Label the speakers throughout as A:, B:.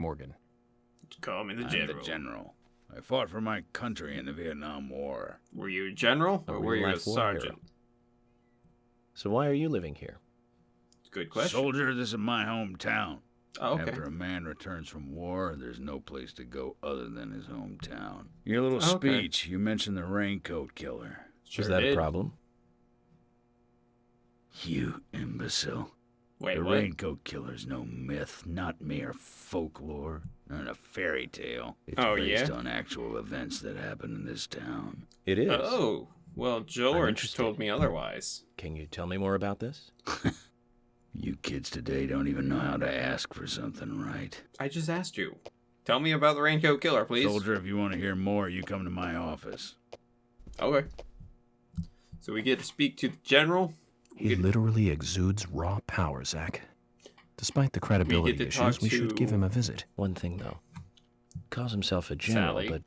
A: Morgan.
B: Call me the
C: I'm
B: general.
C: the general. I fought for my country in the Vietnam War.
B: Were you a general
A: A
B: or were you a
A: real-life war hero.
B: sergeant?
A: So why are you living here?
B: Good question.
C: Soldier, this is my hometown.
B: oh, okay.
C: After a man returns from war, there's no place to go other than his hometown. Your little
B: Okay.
C: speech, you mentioned the raincoat killer.
B: Sure
A: Is that
B: did.
A: a problem?
C: You imbecile.
B: Wait,
C: the
B: what?
C: raincoat killer's no myth, not mere folklore, not a fairy tale. It's
B: Oh,
C: based
B: yeah?
C: on actual events that happened in this town.
A: It is.
B: Oh, well, George
A: interested.
B: told me otherwise.
A: Can you tell me more about this?
C: You kids today don't even know how to ask for something right.
B: I just asked you. Tell me about the Raincoat Killer, please.
C: Soldier, if you want to hear more, you come to my office.
B: Okay. So we get to speak to the general.
D: He literally exudes raw power, Zach. Despite the credibility
B: to
D: issues,
B: talk
D: we should give
B: to-
D: him a visit.
A: One thing though. Calls himself a general,
B: Sally.
A: but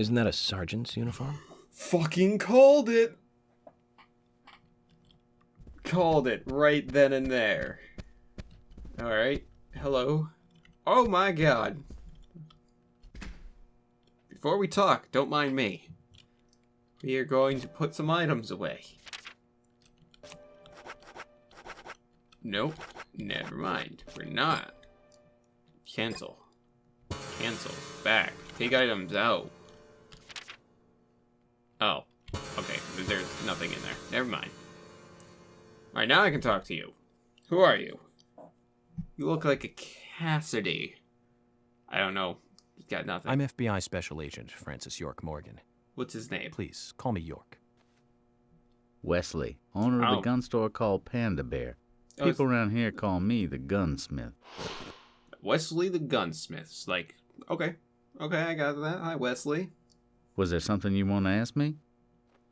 A: isn't that a sergeant's uniform?
B: Fucking called it. Called it right then and there. All right. Hello. Oh my god. Before we talk, don't mind me. We are going to put some items away. Nope. Never mind. We're not. Cancel. Cancel. Back. Take items out. Oh, okay. There's nothing in there. Never mind. All right, now I can talk to you. Who are you? You look like a Cassidy. I don't know. He's got nothing.
D: I'm FBI Special Agent Francis York Morgan.
B: What's his name?
D: Please call me York.
C: Wesley, owner of
B: Oh.
C: the gun store called Panda Bear.
B: Oh, it's
C: People around here call me the gunsmith.
B: Wesley the gunsmith's like, okay, okay, I got that. Hi, Wesley.
C: Was there something you want to ask me?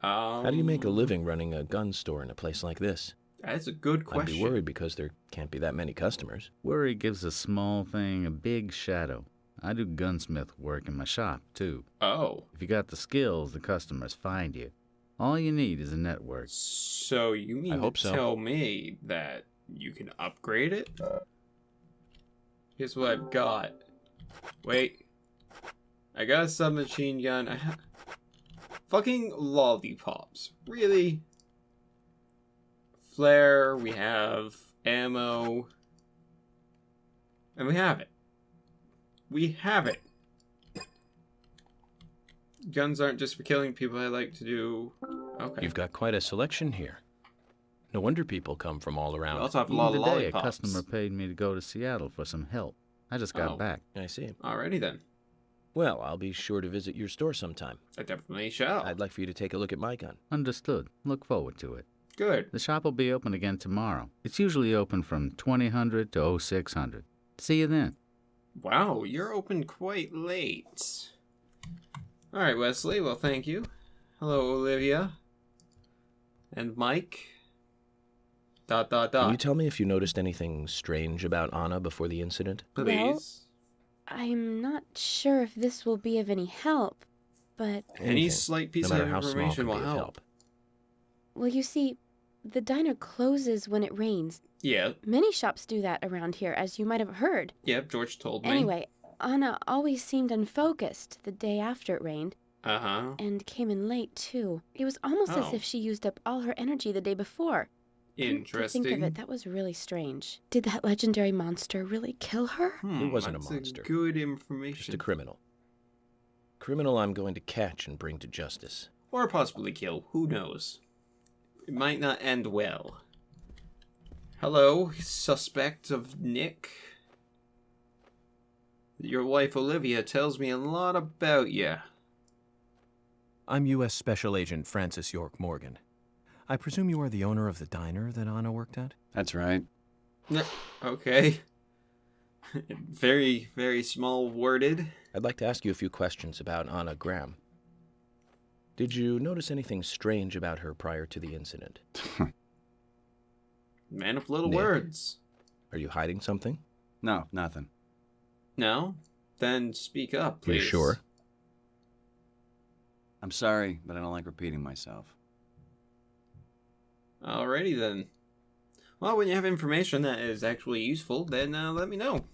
B: Um,
A: How do you make a living running a gun store in a place like this?
B: That's a good question.
A: I'd be worried because there can't be that many customers.
C: Worry gives a small thing a big shadow. I do gunsmith work in my shop, too.
B: Oh,
C: If you got the skills, the customers find you. All you need is a network.
B: so you mean
D: I hope
B: to
D: so.
B: tell me that you can upgrade it? Here's what I've got. Wait, I got a submachine gun. I ha- Fucking lollipops, really? Flare. We have ammo, and we have it. We have it. Guns aren't just for killing people. I like to do. Okay.
D: You've got quite a selection here. No wonder people come from all
B: We
D: around.
B: also have a
C: Even
B: lot of
C: today,
B: lollipops.
C: a customer paid me to go to Seattle for some help. I just got
B: Oh.
C: back.
A: I see.
B: Alrighty then.
A: Well, I'll be sure to visit your store sometime.
B: I definitely shall.
A: I'd like for you to take a look at my gun.
C: Understood. Look forward to it.
B: Good.
C: The shop will be open again tomorrow. It's usually open from 2000 to 0600. See you then.
B: Wow, you're open quite late. Alright, Wesley. Well, thank you. Hello, Olivia. And Mike. Dot, dot, dot.
A: Can you tell me if you noticed anything strange about Anna before the incident?
B: Please.
E: I'm not sure if this will be of any help, but,
B: Any
A: Anything,
B: slight piece
A: no
B: of
A: matter how small,
B: information
A: could
B: will
A: be of
B: help.
E: well, you see, the diner closes when it rains.
B: Yeah,
E: Many shops do that around here, as you might have heard.
B: yep, George told me.
E: Anyway, Anna always seemed unfocused the day after it rained,
B: Uh huh.
E: and came in late, too. It was almost as
B: Oh.
E: if she used up all her energy the day before. Come
B: Interesting.
E: To think of it, that was really strange. Did that legendary monster really kill her?
B: Hmm,
A: It wasn't a
B: that's
A: monster.
B: good information.
A: Just a criminal. Criminal I'm going to catch and bring to justice.
B: or possibly kill. Who knows? It might not end well. Hello, suspect of Nick. Your wife Olivia tells me a lot about you.
D: I'm U.S. Special Agent Francis York Morgan. I presume you are the owner of the diner that Anna worked at?
F: That's right.
B: Okay. very, very small worded.
A: I'd like to ask you a few questions about Anna Graham. Did you notice anything strange about her prior to the incident?
B: Man of little
A: Nick.
B: words.
A: Are you hiding something?
F: no, nothing.
B: No? Then speak up,
A: You
B: please.
A: sure?
F: I'm sorry, but I don't like repeating myself.
B: Alrighty then. Well, when you have information that is actually useful, then uh, let me know.